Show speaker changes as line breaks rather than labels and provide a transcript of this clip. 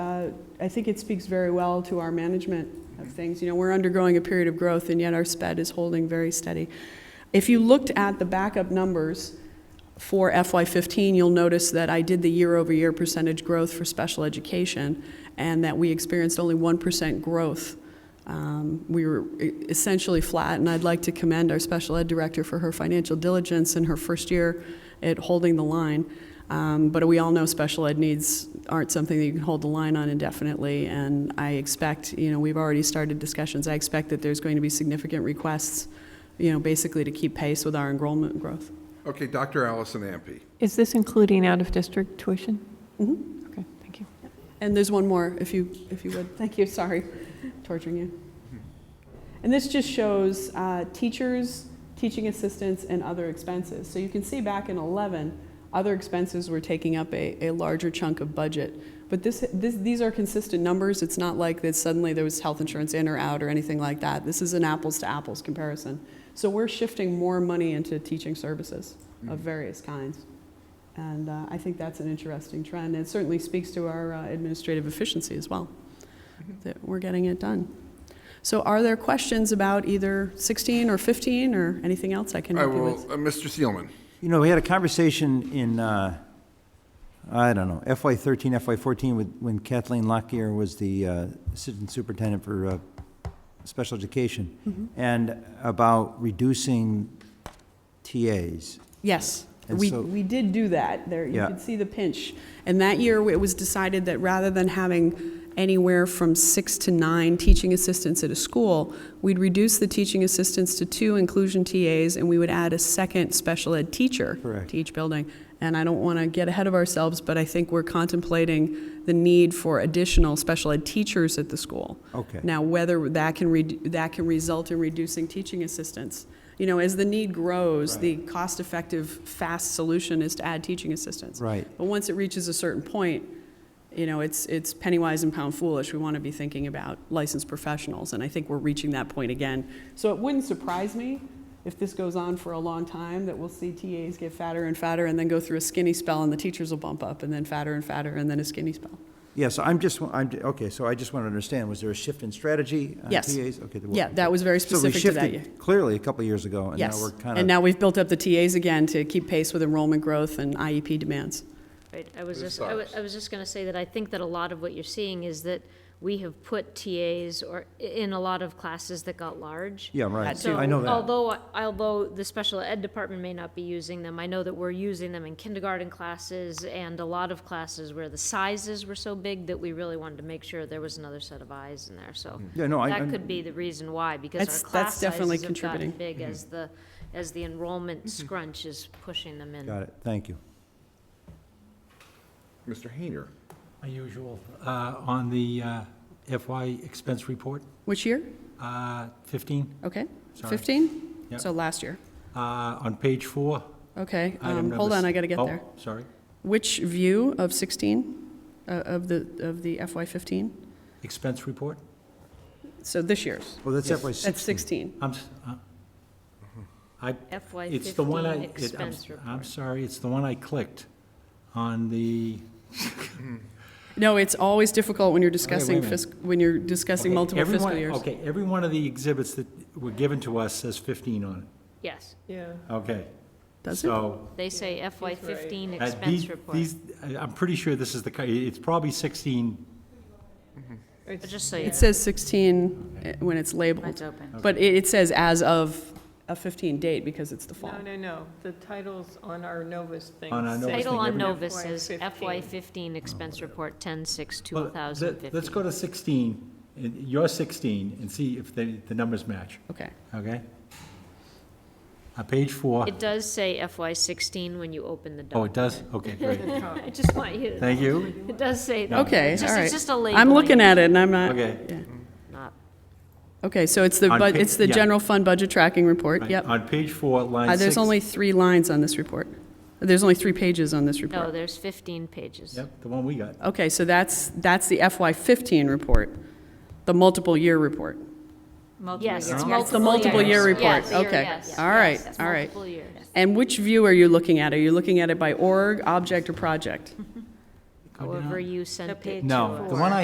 Uh, I think it speaks very well to our management of things. You know, we're undergoing a period of growth, and yet our sped is holding very steady. If you looked at the backup numbers for FY15, you'll notice that I did the year-over-year percentage growth for special education, and that we experienced only 1% growth. Um, We were e- essentially flat, and I'd like to commend our special ed director for her financial diligence in her first year at holding the line. Um, But we all know special ed needs aren't something that you can hold the line on indefinitely, and I expect, you know, we've already started discussions. I expect that there's going to be significant requests, you know, basically to keep pace with our enrollment growth.
Okay, Dr. Allison Ampe.
Is this including out-of-district tuition?
Mhm.
Okay, thank you.
And there's one more, if you, if you would. Thank you, sorry, torturing you. And this just shows uh, teachers, teaching assistants, and other expenses. So you can see back in 11, other expenses were taking up a, a larger chunk of budget. But this, this, these are consistent numbers. It's not like that suddenly there was health insurance in or out or anything like that. This is an apples to apples comparison. So we're shifting more money into teaching services of various kinds. And uh, I think that's an interesting trend. It certainly speaks to our uh, administrative efficiency as well, that we're getting it done. So are there questions about either 16 or 15 or anything else I can
I
help you
will,
with?
uh, Mr. Seelman.
You know, we had a conversation in, uh, I don't know, FY thirteen, FY fourteen, with, when Kathleen Lockyer was the, uh, assistant superintendent for, uh, special education.
Mm-hmm.
And about reducing TAs.
Yes,
And
we,
so-
we did do that. There, you
Yeah.
could see the pinch. And that year, it was decided that rather than having anywhere from six to nine teaching assistants at a school, we'd reduce the teaching assistants to two inclusion TAs, and we would add a second special ed teacher
Correct.
to each building. And I don't want to get ahead of ourselves, but I think we're contemplating the need for additional special ed teachers at the school.
Okay.
Now, whether that can, redu- that can result in reducing teaching assistants. You know, as the need grows, the cost-effective, fast solution is to add teaching assistants.
Right.
But once it reaches a certain point, you know, it's, it's penny wise and pound foolish. We want to be thinking about licensed professionals, and I think we're reaching that point again. So it wouldn't surprise me if this goes on for a long time, that we'll see TAs get fatter and fatter and then go through a skinny spell, and the teachers will bump up, and then fatter and fatter, and then a skinny spell.
Yeah, so I'm just, I'm, okay, so I just want to understand, was there a shift in strategy on
Yes.
TAs? Okay, there was.
Yeah, that was very
So we
specific to that year.
shifted Clearly, a couple of years ago, and now
Yes,
we're kind of.
and now we've built up the TAs again to keep pace with enrollment growth and IEP demands.
Right, I was
Ms.
just, I wa-
Cyrus.
I was just gonna say that I think that a lot of what you're seeing is that we have put TAs or, i- in a lot of classes that got large.
Yeah,
Had
right,
to.
So
I know that.
although, although the special ed department may not be using them, I know that we're using them in kindergarten classes and a lot of classes where the sizes were so big that we really wanted to make sure there was another set of eyes in there, so.
Yeah, no, I-
That
I'm-
could be the reason why, because
That's-
our class
that's definitely
sizes have gotten
contributing.
big
Mm-hmm.
as the, as the enrollment scrunch is pushing them in.
Got it, thank you.
Mr. Hayner.
My usual, uh, on the uh, FY expense report,
Which year?
uh, 15,
Okay,
Sorry.
15?
Yep.
So last year.
uh, on page four.
Okay,
item
um,
number
hold on,
s-
I got to get
oh,
there.
Sorry,
Which view of 16, uh, of the, of the FY15?
expense report?
So this year's,
Well, that's
Yes.
FY
that's
sixteen.
16.
I'm, s- uh, I,
FY
it's the one I.
fifteen
it- I'm s-
expense report.
I'm sorry, it's the one I clicked on the,
No, it's always difficult when you're
wait a
discussing
minute.
fiscal, when you're discussing
Okay,
multiple
every
fiscal
one-
years.
Okay, every one of the exhibits that were given to us says 15 on
Yes,
Yeah.
it, okay.
Does it?
So
they say FY fifteen
Uh,
expense
these-
report,
These, I- I'm pretty sure this is the, ki- it's probably 16,
But just so you know.
It says 16 eh, when it's
It's
labeled,
open.
but it it says as of a 15 date because it's the fall.
No, no, no, the titles on our Novus thing.
On our
say-
Novus
Title on
every-
Novus is
FY15.
FY fifteen expense report, ten six,
Well,
two
let-
thousand
Let's go
fifteen.
to 16, and you're 16, and see if the, the numbers match,
Okay.
okay? On page four,
It does say FY sixteen when you open the
oh,
document.
it does? Okay, great.
I just want you to. know.
Thank you.
It does say that.
Okay,
It's
all
just-
right.
It's just a label.
I'm looking at it and I'm not.
Okay.
yeah.
Not
Okay, so it's the,
On
bud-
pa-
it's the
yeah.
general fund budget tracking report, yep.
On page four, line
Uh,
six.
There's only three lines on this report. There's only three pages on this
No,
report.
there's fifteen pages.
Yep, the one we got.
Okay, so that's, that's the FY15 report, the multiple year report.
Yes, it's
It's
multiple.
the multiple year
years.
report,
Yes,
okay.
yes,
All right,
yes,
all right.
Multiple years.
And which view are you looking at? Are you looking at it by org, object, or project?
Go down.
However you sent it to
page
us.
No, the one I